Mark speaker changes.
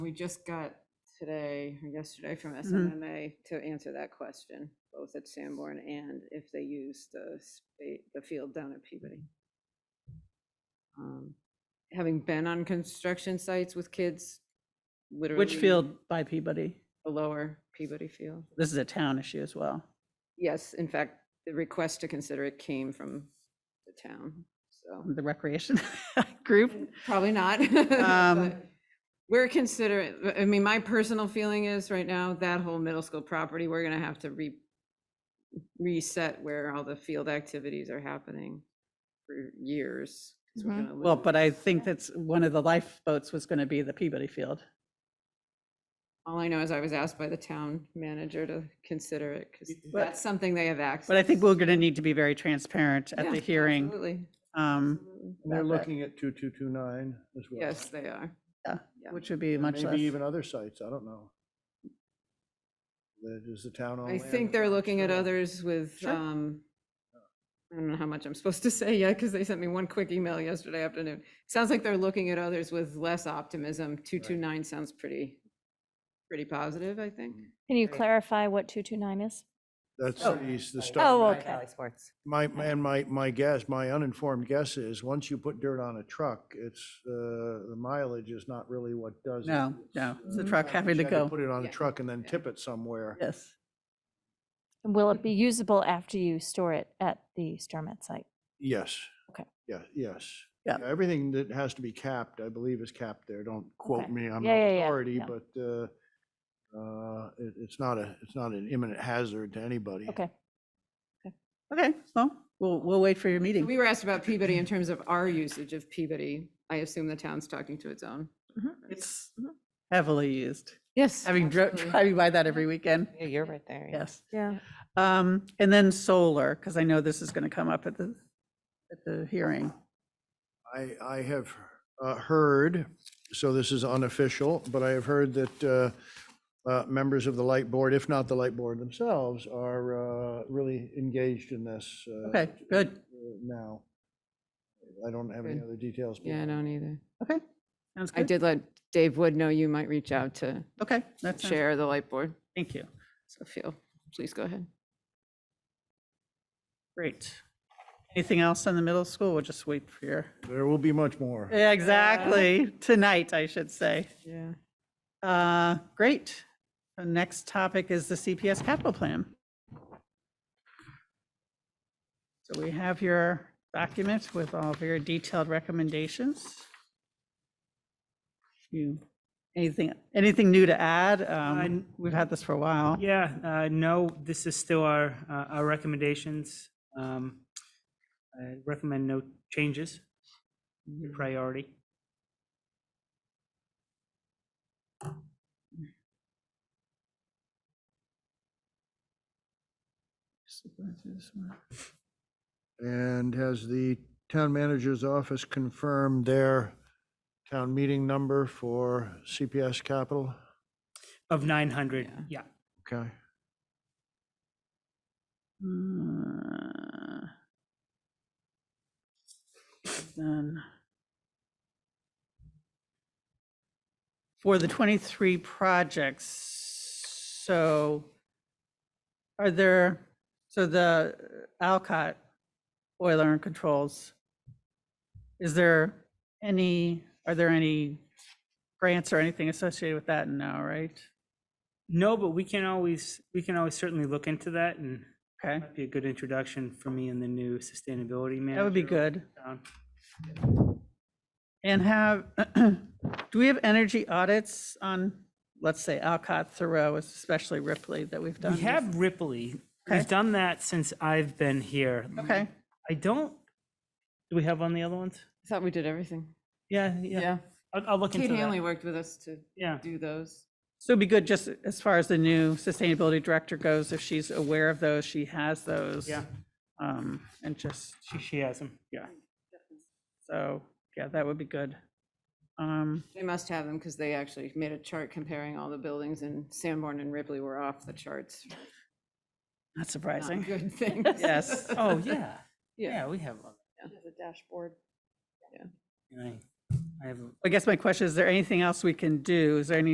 Speaker 1: we just got today or yesterday
Speaker 2: Mm-hmm.
Speaker 1: from SMMA to answer that question, both at Sanborn and if they use the spa- the field down at Peabody. Um, Having been on construction sites with kids, literally.
Speaker 2: Which field by Peabody?
Speaker 1: The lower Peabody field.
Speaker 2: This is a town issue as well.
Speaker 1: Yes, in fact, the request to consider it came from the town, so.
Speaker 2: The recreation group.
Speaker 1: Probably not.
Speaker 2: Um,
Speaker 1: but We're considering, I mean, my personal feeling is right now, that whole middle school property, we're gonna have to re, reset where all the field activities are happening for years. 'cause we're
Speaker 3: Mhm.
Speaker 1: gonna
Speaker 2: Mm-hmm. Well, but
Speaker 1: lose-
Speaker 2: I think that's one of the lifeboats was going to be the Peabody Field.
Speaker 1: All I know is I was asked by the town manager to consider it, because
Speaker 2: But-
Speaker 1: that's something they have access.
Speaker 2: But I think
Speaker 1: to.
Speaker 2: we're going to need to be very transparent at
Speaker 1: Yeah,
Speaker 2: the hearing.
Speaker 1: Absolutely.
Speaker 2: um,
Speaker 1: absolutely.
Speaker 4: And They're
Speaker 2: about that.
Speaker 4: looking at 2229 as well.
Speaker 1: Yes, they are. Yeah.
Speaker 2: Which would be
Speaker 4: And
Speaker 2: much less.
Speaker 4: Maybe even other sites, I don't know. That is the town on
Speaker 1: I
Speaker 4: land.
Speaker 1: think they're looking at
Speaker 4: Sure.
Speaker 1: others with,
Speaker 2: Sure.
Speaker 1: um, I don't know how much I'm supposed to say yet, because they sent me one quick email yesterday afternoon. Sounds like they're looking at others with less optimism. 229 sounds pretty, pretty positive, I think.
Speaker 3: Can you
Speaker 5: Right.
Speaker 3: clarify what 229 is?
Speaker 4: That's
Speaker 5: Oh.
Speaker 4: the east, the
Speaker 3: Oh,
Speaker 4: stuff.
Speaker 3: okay.
Speaker 5: Cali Sports.
Speaker 4: My, my- and my, my guess, my uninformed guess is, once you put dirt on a truck, it's, uh, the mileage is not really what does it.
Speaker 2: No, no, it's the
Speaker 4: uh,
Speaker 2: truck having to
Speaker 4: you had
Speaker 2: go.
Speaker 4: Put it on a
Speaker 1: Yeah.
Speaker 4: truck and then
Speaker 1: Yeah.
Speaker 4: tip it somewhere.
Speaker 2: Yes.
Speaker 3: And will it be usable after you store it at the Stormont site?
Speaker 4: Yes.
Speaker 3: Okay.
Speaker 4: Yeah, yes.
Speaker 2: Yeah.
Speaker 4: Everything that has to be capped, I believe, is capped there. Don't quote
Speaker 3: Okay.
Speaker 4: me, I'm
Speaker 3: Yeah,
Speaker 4: no
Speaker 3: yeah, yeah,
Speaker 4: authority,
Speaker 3: yeah.
Speaker 4: but uh, uh, it- it's not a, it's not an imminent hazard to anybody.
Speaker 3: Okay.
Speaker 2: Okay, well, we'll, we'll wait for your meeting.
Speaker 1: We were asked about Peabody in terms of our usage of Peabody. I assume the town's talking to its own.
Speaker 5: Mm-hmm.
Speaker 2: It's
Speaker 1: Mm-hmm.
Speaker 2: heavily used,
Speaker 1: Yes.
Speaker 2: having, dri- driving by that every weekend.
Speaker 5: Yeah, You're right there. yeah.
Speaker 2: Yes.
Speaker 1: Yeah.
Speaker 2: Um, and then solar, because I know this is going to come up at the, at the hearing.
Speaker 4: I, I have uh, heard, so this is unofficial, but I have heard that uh, uh, members of the light board, if not the light board themselves, are uh, really engaged in this. uh,
Speaker 2: Okay, good.
Speaker 4: uh, Now. I don't have any
Speaker 1: Good.
Speaker 4: other details. but-
Speaker 1: Yeah, I don't either.
Speaker 2: Okay, sounds
Speaker 1: I
Speaker 2: good.
Speaker 1: did let Dave Wood know you might reach out to
Speaker 2: Okay, that's, thank
Speaker 1: share the light board.
Speaker 2: you.
Speaker 1: So feel, please go ahead.
Speaker 2: Great. Anything else on the middle school? We'll just wait for your,
Speaker 4: There will be much more.
Speaker 2: Yeah, exactly, tonight, I should say.
Speaker 1: Yeah.
Speaker 2: Uh, Great. The next topic is the CPS capital plan. So we have your document with all of your detailed recommendations. You, anything, anything new to add? Um, We've had this for a while.
Speaker 6: Yeah, uh, no, this is still our, uh, our recommendations. Um, I recommend no changes, Your priority.
Speaker 4: And has the town manager's office confirmed their town meeting number for CPS Capital?
Speaker 6: Of 900,
Speaker 1: Yeah.
Speaker 6: yeah.
Speaker 4: Okay.
Speaker 2: Uh, Then. For the 23 projects, so are there, so the Alcott boiler and controls, is there any, are there any grants or anything associated with that now, right?
Speaker 6: No, but we can always, we can always certainly look into that and
Speaker 2: Okay,
Speaker 6: that'd be a good introduction for me and the new sustainability manager.
Speaker 2: that would be good.
Speaker 6: Um,
Speaker 2: And have, do we have energy audits on, let's say Alcott, Thoreau, especially Ripley that we've done?
Speaker 6: We have Ripley.
Speaker 2: Okay.
Speaker 6: We've done that since I've been here.
Speaker 2: Okay,
Speaker 6: I don't, do we have on the other ones?
Speaker 1: I thought we did everything.
Speaker 6: Yeah, yeah.
Speaker 1: Yeah.
Speaker 6: I'll, I'll look into
Speaker 1: Kate Hanley
Speaker 6: that.
Speaker 1: worked with us to
Speaker 6: Yeah.
Speaker 1: do those.
Speaker 2: so it'd be good just as far as the new sustainability director goes, if she's aware of those, she has those.
Speaker 6: Yeah.
Speaker 2: Um, and just,
Speaker 6: She, she has them. Yeah.
Speaker 2: so, yeah, that would be good. Um,
Speaker 1: They must have them because they actually made a chart comparing all the buildings and Sanborn and Ripley were off the charts. for
Speaker 2: not
Speaker 1: not
Speaker 2: surprising.
Speaker 1: Good things.
Speaker 2: Yes.
Speaker 6: Oh, yeah.
Speaker 1: Yeah.
Speaker 6: Yeah, we have one.
Speaker 1: The dashboard.
Speaker 6: And I, I have a
Speaker 2: I guess my question, is there anything else we can do? Is there any